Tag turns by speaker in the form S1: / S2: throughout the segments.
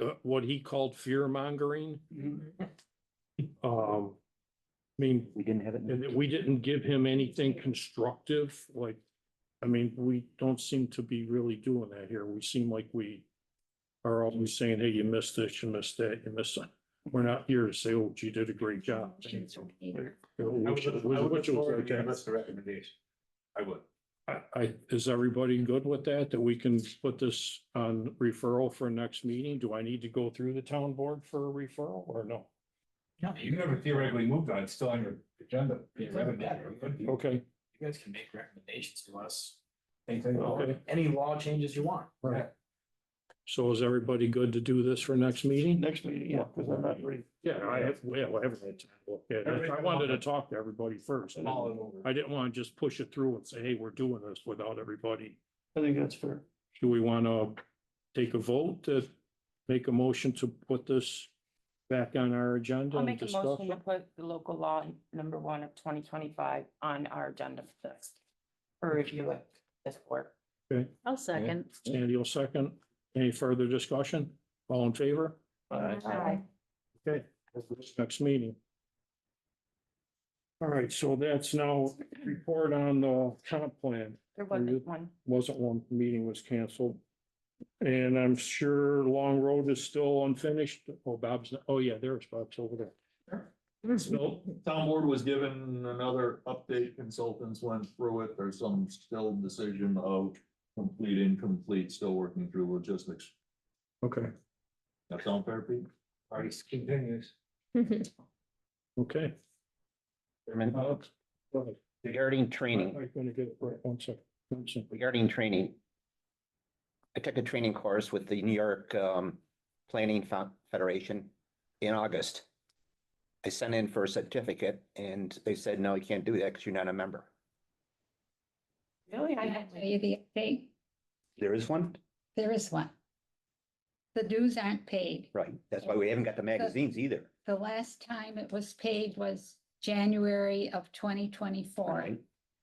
S1: uh, what he called fear mongering. Um, I mean,
S2: We didn't have it. in
S1: and we didn't give him anything constructive, like, I mean, we don't seem to be really doing that here. We seem like we are always saying, hey, you missed this, you missed that, you missed that. We're not here to say, oh, gee, you did a great job. Which- which was okay.
S3: the recommendation. I would.
S1: I, I, is everybody good with that, that we can put this on referral for next meeting? Do I need to go through the town board for a referral or no?
S3: You never theoretically moved on, it's still on your agenda. It doesn't matter. You
S1: Okay,
S3: guys can make recommendations to us.
S1: Okay.
S3: Any law changes you want.
S1: Right. so is everybody good to do this for next meeting?
S2: Next meeting, yeah, because I'm not ready.
S1: Yeah, I have, well, I haven't had time to look at it. I wanted to talk to everybody first.
S3: Mull it over.
S1: I didn't want to just push it through and say, hey, we're doing this without everybody.
S2: I think that's fair.
S1: Do we want to take a vote to make a motion to put this back on our agenda
S4: I'll
S1: and
S4: make a
S1: discuss?
S4: motion to
S1: it?
S4: put the local law number one of twenty twenty-five on our agenda for this. For review of this board.
S5: I'll second.
S1: Sandy will second. Any further discussion? All in favor?
S4: Aye.
S1: Okay, next meeting. All right, so that's now report on the comp plan.
S4: There
S1: you-
S4: wasn't one.
S1: wasn't one meeting was canceled. And I'm sure Long Road is still unfinished. Oh, Bob's, oh yeah, there's Bob's over there.
S6: No, town board was given another update, consultants went through it, there's some still decision of complete, incomplete, still working through logistics.
S1: Okay.
S6: That sound fair, Pete?
S3: Already continues.
S1: Okay.
S7: Chairman,
S1: Bob, go ahead.
S7: regarding training,
S1: I'm gonna get it right, one second. One second.
S7: regarding training. I took a training course with the New York um Planning Fo- Federation in August. I sent in for a certificate and they said, no, you can't do that because you're not a member.
S4: Really? I
S5: I
S4: had.
S5: tell you the update,
S7: There is one?
S5: there is one. The dues aren't paid.
S7: Right, that's why we haven't got the magazines either.
S5: The last time it was paid was January of twenty twenty-four.
S7: Right.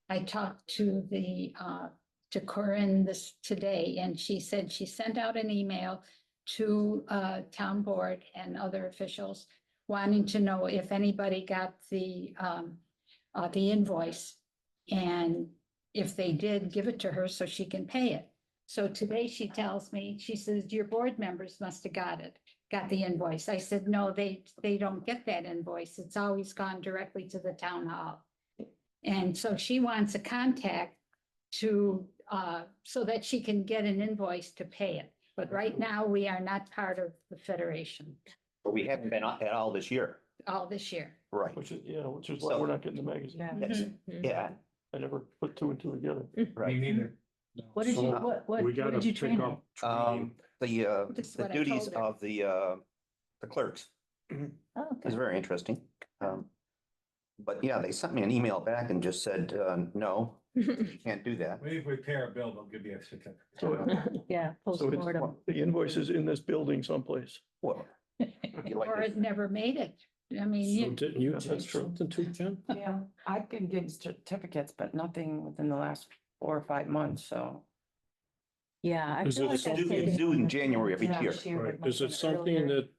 S5: I talked to the, uh, to Corinne this today, and she said she sent out an email to, uh, town board and other officials wanting to know if anybody got the, um, uh, the invoice. And if they did, give it to her so she can pay it. So today she tells me, she says, your board members must have got it, got the invoice. I said, no, they, they don't get that invoice. It's always gone directly to the town hall. And so she wants a contact to, uh, so that she can get an invoice to pay it. But right now, we are not part of the federation
S7: But we haven't been at all this year.
S5: all this year.
S7: Right.
S2: Which is, yeah, which is why we're not getting the magazine.
S4: Yeah.
S5: Mm-hmm.
S7: Yes. Yeah,
S2: I never put two and two together.
S3: Me
S7: right.
S3: neither.
S5: What did you, what, what?
S1: We gotta pick up.
S7: Um, the uh,
S5: That's
S7: the
S5: what I
S7: duties
S5: told her.
S7: of the uh, the clerks.
S4: Oh,
S7: It's very interesting. Um, but yeah, they sent me an email back and just said, uh, no, you can't do that.
S3: Maybe if we pay our bill, they'll give you a certificate.
S5: Yeah.
S2: So it's, the invoice is in this building someplace.
S7: Well, you like
S5: Or
S7: this.
S5: it never made it. I mean,
S1: So
S5: you-
S1: didn't you
S2: That's
S1: take
S2: true.
S1: something too, Jim?
S4: Yeah, I can get certificates, but nothing within the last four or five months, so.
S8: Yeah. I
S1: Is
S8: feel
S1: it
S8: like
S1: still-
S8: that's
S7: it's
S8: taken-
S7: due in January of each
S4: Yeah,
S7: year.
S4: she would
S1: Is
S4: mention
S1: it something
S4: earlier.
S1: that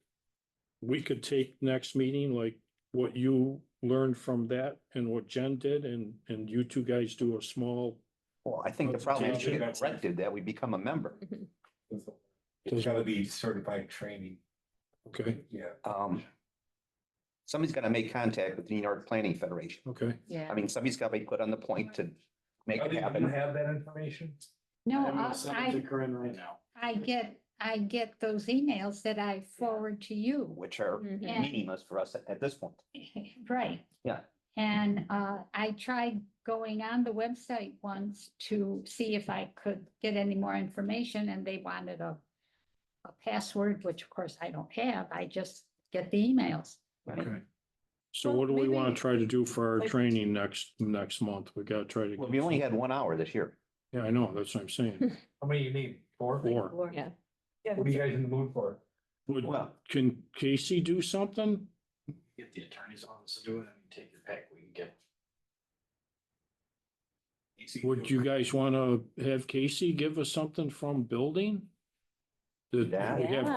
S1: we could take next meeting, like what you learned from that and what Jen did and, and you two guys do a small
S7: Well, I think the problem is we
S3: Yeah.
S7: get corrected that we become a member.
S3: It's gotta be certified training.
S1: Okay,
S3: Yeah.
S7: Um, somebody's got to make contact with the New York Planning Federation.
S1: okay.
S8: Yeah.
S7: I mean, somebody's got to be put on the point to make
S3: Oh,
S7: it
S3: do you
S7: happen.
S3: have that information?
S5: no,
S3: I'm gonna
S5: I-
S3: send it
S5: I,
S3: to Corinne right now.
S5: I get, I get those emails that I forward to you.
S7: Which are
S4: Mm.
S1: Mm-hmm.
S5: Yeah.
S7: meaningless for us at- at this point.
S5: Right.
S7: Yeah.
S5: And uh, I tried going on the website once to see if I could get any more information and they wanted a a password, which of course I don't have. I just get the emails.
S1: Okay. So
S4: Well,
S1: what do we want
S4: maybe-
S1: to try to do for our
S4: Like-
S1: training next, next month? We gotta try to.
S7: Well, we only had one hour this year.
S1: Yeah, I know, that's what I'm saying.
S3: How many you need? Four?
S1: Or
S8: Yeah.
S3: What are you guys in the mood for?
S1: would,
S7: Well,
S1: can Casey do something?
S3: Get the attorney's office to do it, and take your pick, we can get.
S1: Would you guys want to have Casey give us something from building? That we have
S8: Yeah.